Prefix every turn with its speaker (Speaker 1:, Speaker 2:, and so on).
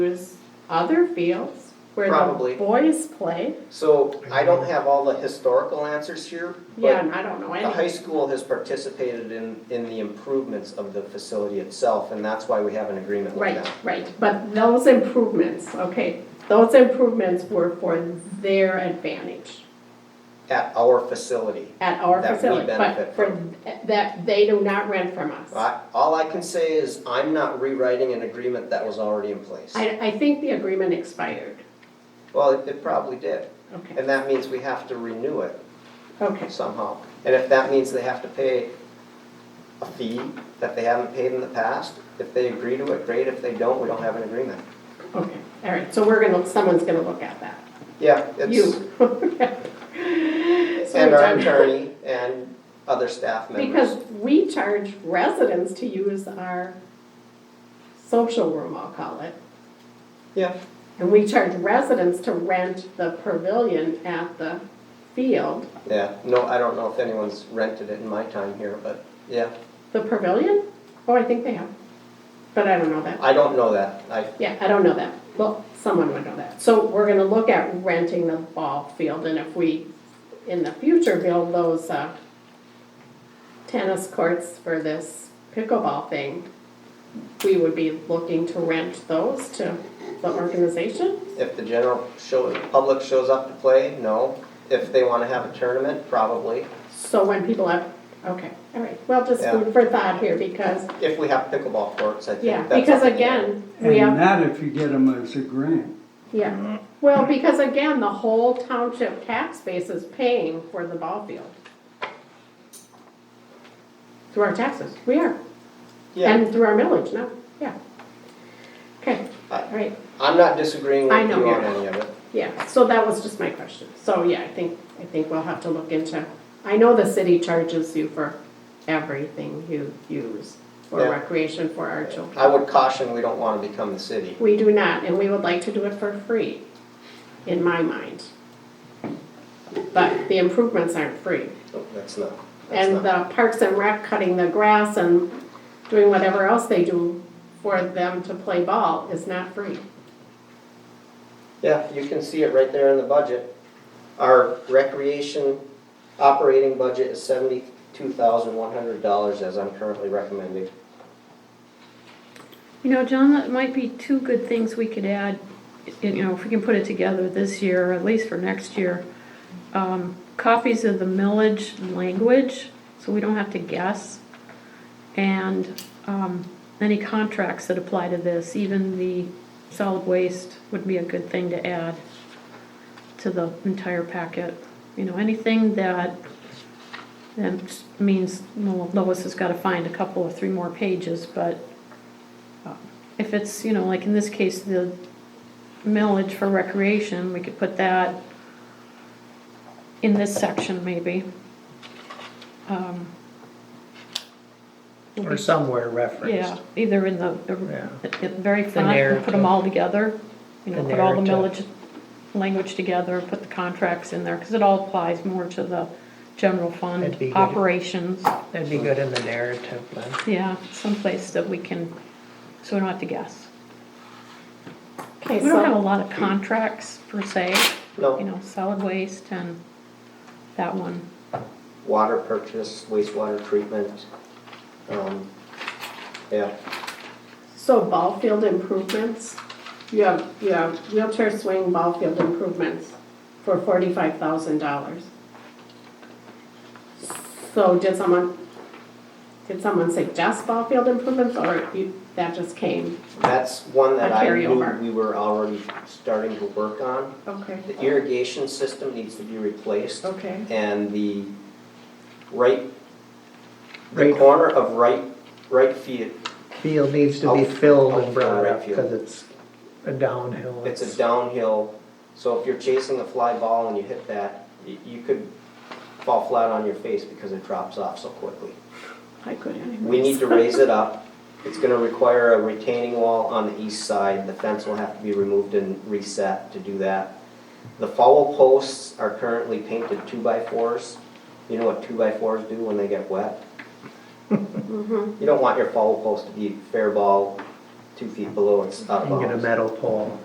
Speaker 1: There's other fields where
Speaker 2: Probably.
Speaker 1: the boys play.
Speaker 2: So I don't have all the historical answers here,
Speaker 1: Yeah,
Speaker 2: but
Speaker 1: and I don't know
Speaker 2: the
Speaker 1: any.
Speaker 2: high school has participated in, in the improvements of the facility itself, and that's why we have an agreement with
Speaker 1: Right,
Speaker 2: them.
Speaker 1: right, but those improvements, okay, those improvements were for their advantage
Speaker 2: At our facility.
Speaker 1: at our
Speaker 2: That we
Speaker 1: facility, but
Speaker 2: benefit
Speaker 1: for, that, they do not rent from us.
Speaker 2: I, all I can say is I'm not rewriting an agreement that was already in place.
Speaker 1: I, I think the agreement expired,
Speaker 2: Well, it- it probably did,
Speaker 1: okay,
Speaker 2: and that means we have to renew it
Speaker 1: okay,
Speaker 2: somehow. And if that means they have to pay a fee that they haven't paid in the past, if they agree to it, great. If they don't, we don't have an agreement.
Speaker 1: okay, all right, so we're gonna, someone's gonna look at that,
Speaker 2: Yeah, it's.
Speaker 1: you.
Speaker 2: And
Speaker 1: And
Speaker 2: our attorney and other staff members.
Speaker 1: Because we charge residents to use our social room, I'll call it.
Speaker 2: Yeah,
Speaker 1: And we charge residents to rent the pavilion at the field.
Speaker 2: yeah, no, I don't know if anyone's rented it in my time here, but yeah,
Speaker 1: The pavilion? Oh, I think they have. But I don't know that.
Speaker 2: I don't know that. I,
Speaker 1: Yeah, I don't know that. Well, someone would know that. So we're gonna look at renting the ball field and if we, in the future, build those, uh, tennis courts for this pickleball thing, we would be looking to rent those to the organization?
Speaker 2: if the general show, public shows up to play, no. If they wanna have a tournament, probably.
Speaker 1: So when people have, okay, all right, well, just
Speaker 2: Yeah.
Speaker 1: food for thought here because,
Speaker 2: If we have pickleball courts, I
Speaker 1: yeah,
Speaker 2: think that's.
Speaker 1: because
Speaker 2: up in the air.
Speaker 1: again, we
Speaker 3: And
Speaker 1: have,
Speaker 3: that if you get them as a grant.
Speaker 1: yeah. Well, because again, the whole township tax base is paying for the ball field. Through our taxes, we are,
Speaker 2: Yeah,
Speaker 1: and through our millage, no, yeah. Okay,
Speaker 2: Uh,
Speaker 1: all right,
Speaker 2: I'm not disagreeing
Speaker 1: I
Speaker 2: with
Speaker 1: know
Speaker 2: you
Speaker 1: you're
Speaker 2: on
Speaker 1: not.
Speaker 2: any of it.
Speaker 1: yeah, so that was just my question. So, yeah, I think, I think we'll have to look into, I know the city charges you for everything you use for
Speaker 2: Yeah.
Speaker 1: recreation for our children.
Speaker 2: I would caution, we don't wanna become the city.
Speaker 1: We do not, and we would like to do it for free, in my mind. But the improvements aren't free.
Speaker 2: No, That's not, that's
Speaker 1: And
Speaker 2: not.
Speaker 1: the Parks and Rec cutting the grass and doing whatever else they do for them to play ball is not free.
Speaker 2: Yeah, you can see it right there in the budget. Our recreation operating budget is seventy-two thousand one hundred dollars as I'm currently recommending.
Speaker 4: You know, John, that might be two good things we could add, you know, if we can put it together this year, or at least for next year. Um, Copies of the millage language, so we don't have to guess. And um, any contracts that apply to this, even the solid waste would be a good thing to add to the entire packet. You know, anything that, that means, well, Lois has got to find a couple or three more pages, but if it's, you know, like in this case, the millage for recreation, we could put that in this section maybe. Um,
Speaker 5: Or somewhere
Speaker 4: Yeah,
Speaker 5: referenced.
Speaker 4: either in the,
Speaker 5: Yeah.
Speaker 4: the- at the very front, and put them
Speaker 5: narrative.
Speaker 4: all together. You know,
Speaker 5: The
Speaker 4: put all the millage
Speaker 5: narrative.
Speaker 4: language together, put the contracts in there, because it all applies more to the general fund
Speaker 5: That'd be good.
Speaker 4: operations.
Speaker 5: That'd be good in the narrative, Lynn.
Speaker 4: Yeah, someplace that we can, so we don't have to guess.
Speaker 1: Okay,
Speaker 4: We don't have a
Speaker 1: so,
Speaker 4: lot of contracts per se, you
Speaker 2: No,
Speaker 4: know, solid waste and that one.
Speaker 2: water purchase, wastewater treatment. um, Yeah,
Speaker 1: so ball field improvements, you have, you have wheelchair swing ball field improvements for forty-five thousand dollars. So did someone, did someone suggest ball field improvements, or you, that just came?
Speaker 2: that's one that
Speaker 1: A
Speaker 2: I knew
Speaker 1: carryover.
Speaker 2: we were already starting to work on.
Speaker 1: Okay.
Speaker 2: The irrigation system needs to be replaced
Speaker 1: Okay,
Speaker 2: and the right, the
Speaker 5: Right.
Speaker 2: corner of right, right field,
Speaker 5: Field needs to be
Speaker 2: Out-
Speaker 5: filled
Speaker 2: out
Speaker 5: and brought
Speaker 2: right
Speaker 5: up
Speaker 2: field.
Speaker 5: because it's a downhill.
Speaker 2: It's a downhill, so if you're chasing a fly ball and you hit that, y- you could fall flat on your face because it drops off so quickly.
Speaker 1: I could anyways.
Speaker 2: We need to raise it up. It's gonna require a retaining wall on the east side. The fence will have to be removed and reset to do that. The foul posts are currently painted two-by-fours. You know what two-by-fours do when they get wet? You don't want your foul post to be fair ball two feet below, it's out of
Speaker 5: and get a
Speaker 2: bounds.
Speaker 5: metal pole.